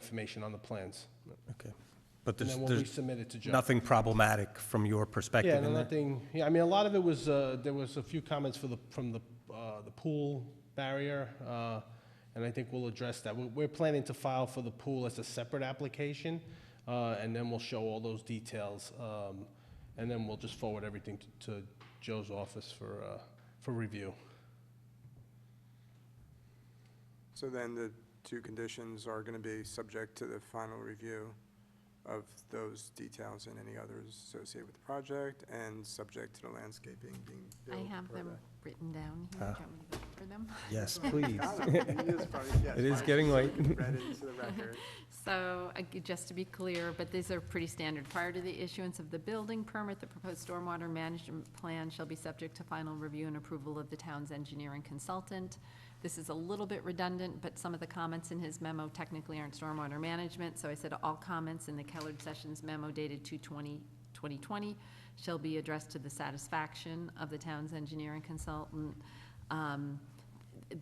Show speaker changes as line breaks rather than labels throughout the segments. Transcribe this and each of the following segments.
information on the plans.
Okay. But
And
there's,
then we'll
there's
resubmit it to Joe.
nothing problematic from your
Yeah,
perspective
no,
in that?
nothing, yeah, I mean, a lot of it was, uh, there was a few comments for the, from the, uh, the pool barrier, uh, and I think we'll address that. We're, we're planning to file for the pool as a separate application, uh, and then we'll show all those details, um, and then we'll just forward everything to- to Joe's office for, uh, for review.
So then the two conditions are going to be subject to the final review of those details and any others associated with the project, and subject to the landscaping being
I
built.
have
per
them
the-
written down here. Do you
Ah.
want me to go over them?
Yes, please.
Got Ah, it. He is funny, yes,
It is
fine.
getting late.
Read it into the record.
So, ag- just to be clear, but these are pretty standard. Prior to the issuance of the building permit, the proposed stormwater management plan shall be subject to final review and approval of the town's engineering consultant. This is a little bit redundant, but some of the comments in his memo technically aren't stormwater management, so I said all comments in the Kellard Sessions memo dated 2/20 2020 shall be addressed to the satisfaction of the town's engineering consultant. Um,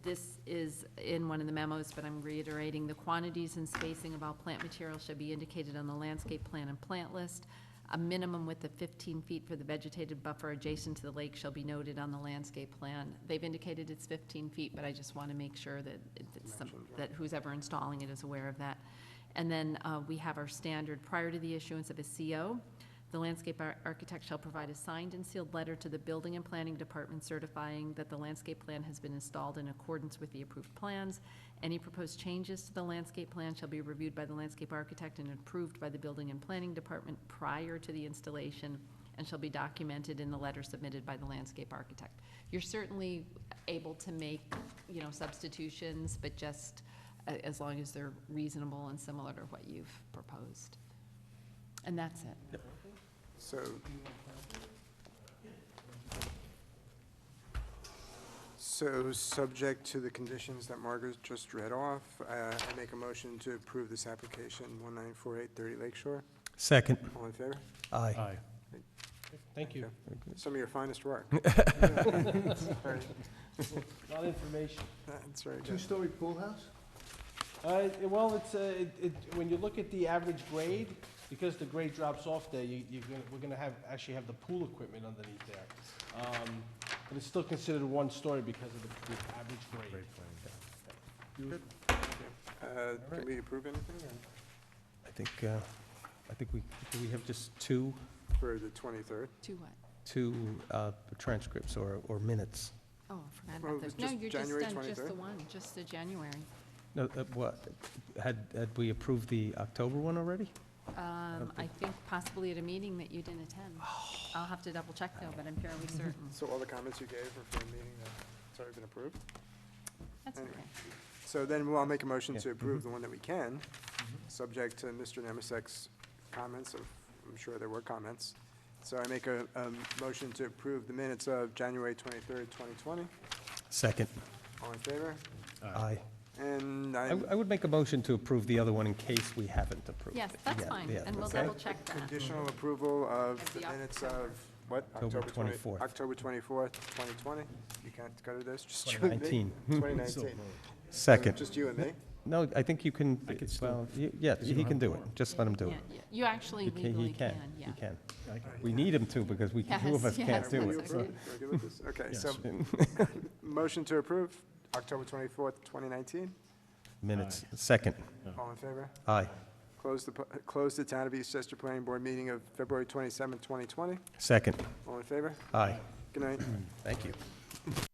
this is in one of the memos, but I'm reiterating, the quantities and spacing of all plant material should be indicated on the landscape plan and plant list. A minimum width of fifteen feet for the vegetated buffer adjacent to the lake shall be noted on the landscape plan. They've indicated it's fifteen feet, but I just want to make sure that it's some, that who's ever installing it is aware of that. And then, uh, we have our standard, prior to the issuance of a CO, the landscape ar- architect shall provide a signed and sealed letter to the building and planning department certifying that the landscape plan has been installed in accordance with the approved plans. Any proposed changes to the landscape plan shall be reviewed by the landscape architect and approved by the building and planning department prior to the installation and shall be documented in the letter submitted by the landscape architect. You're certainly able to make, you know, substitutions, but just a- as long as they're reasonable and similar to what you've proposed. And that's it.
So. So, subject to the conditions that Margaret just read off, uh, I make a motion to approve this application, 194830 Lakeshore.
Second,
All in favor?
aye.
Aye. Thank you.
Some of your finest work.
A lot of information.
That's very good.
Two-story pool house?
Uh, it- well, it's, uh, it, it, when you look at the average grade, because the grade drops off there, you, you're gonna, we're gonna have, actually have the pool equipment underneath there. Um, but it's still considered one story because of the, the average grade.
Uh, Can we approve anything or-
I think, uh, I think we, do we have just two,
for the 23rd?
To what?
two uh, transcripts or, or minutes?
Oh, I forgot
Well, it
about
was
those. No,
just
you're just
January
done, just
23rd.
the one, just the January.
No, uh, what, had, had we approved the October one already?
Um, I think possibly at a meeting that you didn't attend.
Oh.
I'll have to double check though, but I'm fairly certain.
So all the comments you gave are for a meeting that's already been approved?
That's okay.
Anyway. So then we'll make a motion
Yeah, Mm-hmm.
to approve the one that we can, subject to Mr. Nemisek's comments of, I'm sure there were comments. So I make a, a motion to approve the minutes of January 23rd, 2020.
Second,
All in favor?
aye.
And
I
I,
w- I would make a motion to approve the other one in case we haven't approved
Yes,
it.
that's
Yeah,
fine,
yeah,
and we'll
okay.
double check that.
conditional approval of
Of
the
the
minutes of, what?
October
twenty-
24th.
October 24th, 2020. You can't go to this, just you and me.
2019.
2019.
Second.
Just you and me?
No, I think you can, well, y- yeah, he can do it. Just let him do
Yeah,
it.
yeah. You actually
You can-
legally
He can,
can, yeah.
he can. We need him to because we, two of
Yes,
us can't
yes,
do
that's
it.
okay.
We're good with this? Okay, so, motion to approve, October 24th, 2019.
Minutes, second,
All in favor?
aye.
Close the, pu- close the Town of Eastchester Planning Board meeting of February 27th, 2020.
Second,
All in favor?
aye.
Good night.
Thank you.